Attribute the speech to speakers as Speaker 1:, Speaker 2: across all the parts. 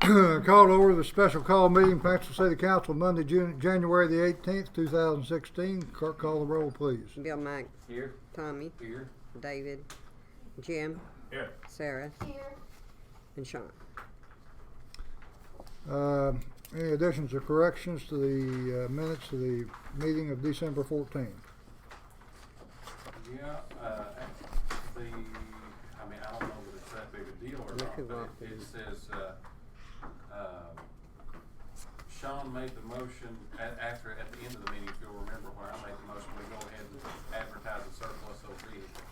Speaker 1: Called over the special call meeting, Paxton City Council, Monday, June, January the eighteenth, two thousand sixteen. Clerk, call the roll, please.
Speaker 2: Bill Mike,
Speaker 3: Here,
Speaker 2: Tommy,
Speaker 3: here.
Speaker 2: David, Jim,
Speaker 3: Here.
Speaker 2: Sarah,
Speaker 4: Here,
Speaker 2: and Sean.
Speaker 1: Uh, Any additions or corrections to the uh, minutes of the meeting of December fourteenth?
Speaker 3: Yeah, uh, the, I mean, I don't know that it's that big a deal or
Speaker 2: Look who
Speaker 3: not,
Speaker 2: walked
Speaker 3: but it-
Speaker 2: in.
Speaker 3: it says, uh, um, Sean made the motion at, after, at the end of the meeting, if you'll remember, when I made the motion, we go ahead and advertise the surplus of vehicle.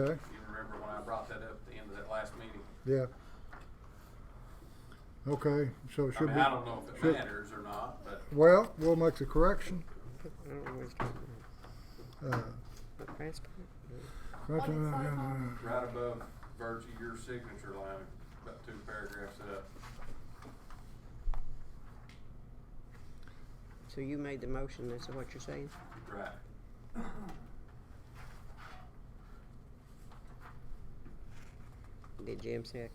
Speaker 1: Okay,
Speaker 3: You remember when I brought that up at the end of that last meeting?
Speaker 1: yeah. Okay, so it
Speaker 3: I
Speaker 1: should
Speaker 3: mean, I don't
Speaker 1: be,
Speaker 3: know if it
Speaker 1: should-
Speaker 3: matters or not, but
Speaker 1: well, we'll make the correction.
Speaker 2: I don't know what's going on.
Speaker 1: Uh,
Speaker 2: What last part?
Speaker 3: right above Virgie, your signature line, about two paragraphs up.
Speaker 2: So you made the motion, that's what you're saying?
Speaker 3: Right.
Speaker 2: Did Jim second?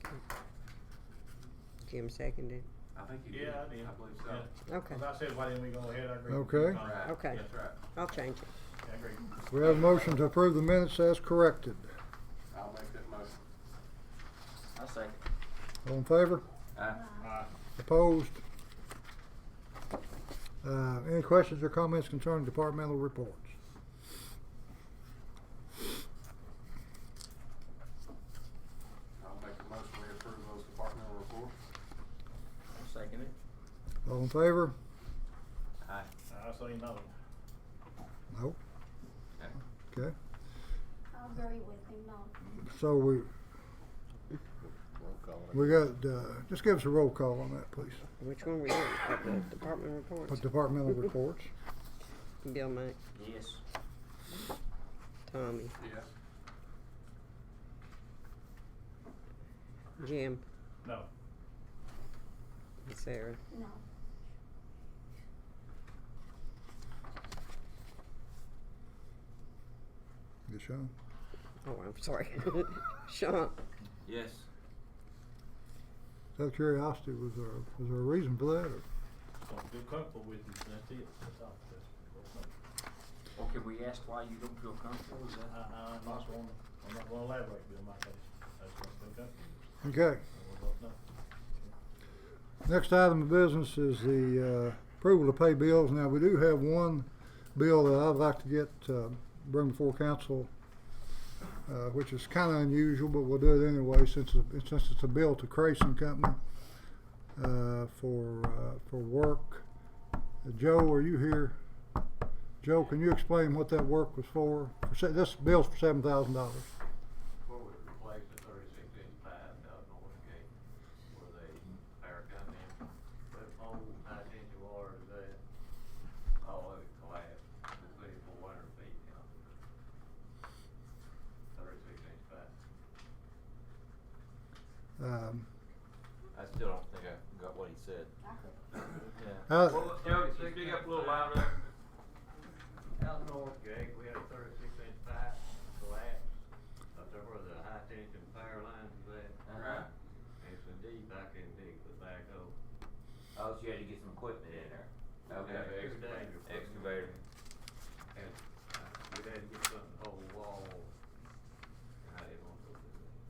Speaker 2: Jim seconded?
Speaker 3: I think you did.
Speaker 5: Yeah, I did.
Speaker 3: I believe so.
Speaker 5: Yeah.
Speaker 2: Okay,
Speaker 5: As I said, why didn't we go ahead, I agree. Uh,
Speaker 1: Okay.
Speaker 3: Right.
Speaker 2: Okay.
Speaker 3: That's right.
Speaker 2: I'll change it.
Speaker 5: I agree.
Speaker 1: We have a motion to approve the minutes as corrected.
Speaker 3: I'll make that motion.
Speaker 6: I second.
Speaker 1: All in favor?
Speaker 3: Aye.
Speaker 5: Uh,
Speaker 1: Opposed? Uh, Any questions or comments concerning departmental reports?
Speaker 3: I'll make the motion we approve those departmental reports.
Speaker 6: I second it.
Speaker 1: All in favor?
Speaker 3: Aye.
Speaker 5: Uh, I say no.
Speaker 1: No?
Speaker 3: Okay.
Speaker 1: Okay,
Speaker 4: I'll agree with him, no.
Speaker 1: so we, we got, uh, just give us a roll call on that, please.
Speaker 2: Which one were you on? The Department reports?
Speaker 1: Put Departmental reports.
Speaker 2: Bill Mike,
Speaker 6: Yes.
Speaker 2: Tommy,
Speaker 3: Yes.
Speaker 2: Jim,
Speaker 5: No.
Speaker 2: and Sarah.
Speaker 4: No.
Speaker 1: Good Sean.
Speaker 2: Oh, I'm sorry. Sean,
Speaker 6: Yes.
Speaker 1: Out of curiosity, was there, was there a reason for that, or?
Speaker 5: So feel comfortable with it, and that's it, that's all. That's-
Speaker 6: Well, can we ask why you don't feel comfortable? Is
Speaker 5: I,
Speaker 6: that?
Speaker 5: Uh, I'm not gonna, I'm not gonna elaborate, Bill, my case. I just don't feel comfortable.
Speaker 1: Okay.
Speaker 5: I will vote no.
Speaker 1: Next item of business is the uh, approval to pay bills. Now, we do have one bill that I'd like to get, uh, bring before council, uh, which is kind of unusual, but we'll do it anyway since, it- since it's a bill to Creason Company uh, for, uh, for work. Uh, Joe, are you here? Joe, can you explain what that work was for? For se- This bill's for seven thousand dollars.
Speaker 7: Well, we replaced the thirty-six inch pipe out north gate where they, power come in. But old nine inch wires that, all of it collapsed, we put it four hundred feet down. Thirty-six inch pipe.
Speaker 1: Um,
Speaker 8: I still don't think I got what he said.
Speaker 4: I could.
Speaker 8: Yeah.
Speaker 1: How,
Speaker 7: Tony, speak up a little louder. Out north gate, we had a thirty-six inch pipe collapse up there where the high tension power lines was at.
Speaker 3: Right.
Speaker 7: It's a deep, I can dig the backhoe.
Speaker 8: Oh, so you had to get some equipment in there.
Speaker 7: Every day, uh,